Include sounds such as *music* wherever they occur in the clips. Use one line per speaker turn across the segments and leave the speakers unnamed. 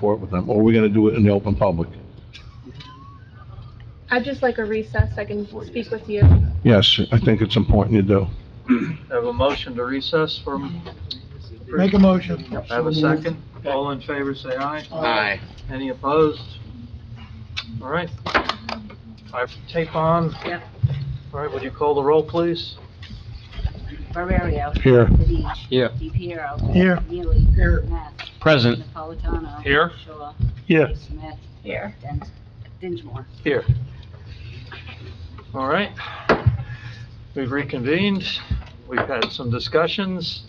for it with them, or we're gonna do it in the open public.
I'd just like a recess, I can speak with you.
Yes, I think it's important you do.
Have a motion to recess from,
Make a motion.
have a second? All in favor, say aye.
Aye.
Any opposed? All right. I tape on.
Yep.
All right, would you call the roll, please?
Barbario.
Here.
Deech.
Yeah.
DePiero.
Here.
Neely.
Here.
Matt.
Present.
Napolitano.
Here.
Shaw.
Yeah.
Smith.
Here.
Dent. Dinsmore.
Here. All right. We've reconvened. We've had some discussions.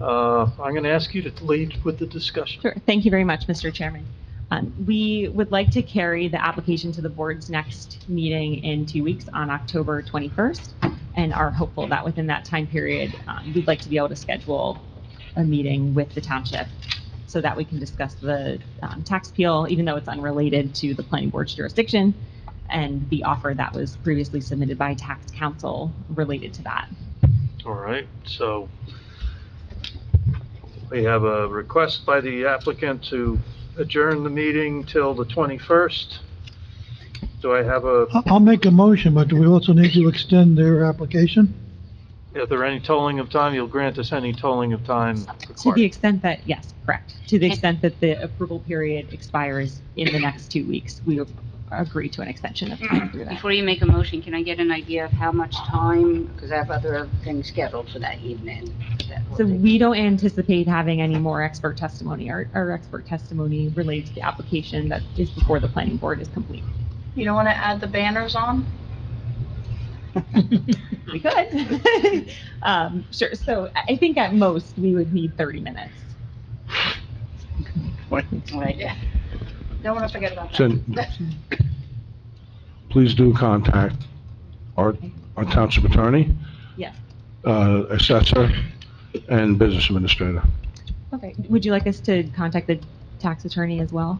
Uh, I'm going to ask you to lead with the discussion.
Sure. Thank you very much, Mr. Chairman. Um, We would like to carry the application to the board's next meeting in two weeks on October 21st, and are hopeful that within that time period, um, we'd like to be able to schedule a meeting with the township so that we can discuss the um, tax appeal, even though it's unrelated to the planning board's jurisdiction, and the offer that was previously submitted by tax counsel related to that.
All right, so we have a request by the applicant to adjourn the meeting till the 21st. Do I have a,
I- I'll make a motion, but do we also need to extend their application?
if there any tolling of time, you'll grant us any tolling of time
To the
required?
extent that, yes, correct. To the extent that the approval period expires in the next two weeks, we agree to an extension of time through that.
Before you make a motion, can I get an idea of how much time? Because I have other things scheduled for that evening. That will
So
be-
we don't anticipate having any more expert testimony. Our, our expert testimony related to the application that is before the planning board is complete.
You don't want to add the banners on?
We could. *laughs* Um, sure, so I I think at most, we would need 30 minutes.
Right.
Don't want to forget about that.
So, please do contact our, our township attorney.
Yes.
Uh, assessor and business administrator.
Okay, would you like us to contact the tax attorney as well?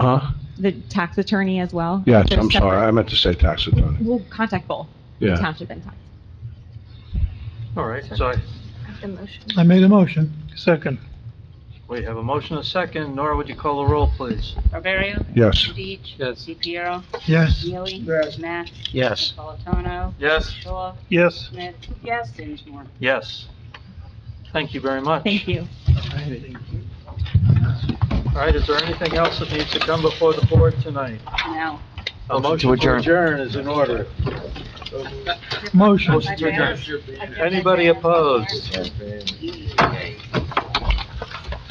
Huh?
The tax attorney as well?
Yes,
They're
I'm sorry, I
separate.
meant to say tax attorney.
We'll contact both, the
Yeah.
township and tax.
All right, so I-
The motion.
I made a motion.
Second. We have a motion, and a second. Nora, would you call the roll, please?
Barbario.
Yes.
Deech.
Yes.
DePiero.
Yes.
Neely.
Yes.
Matt.
Yes.
Napolitano.
Yes.
Shaw.
Yes.
Smith. Yes. Dinsmore.
Yes. Thank you very much.
Thank you.
All right, is there anything else that needs to come before the board tonight?
Now.
A
Motion to adjourn.
is in order.
Motion.
Motion to adjourn. Anybody opposed?
You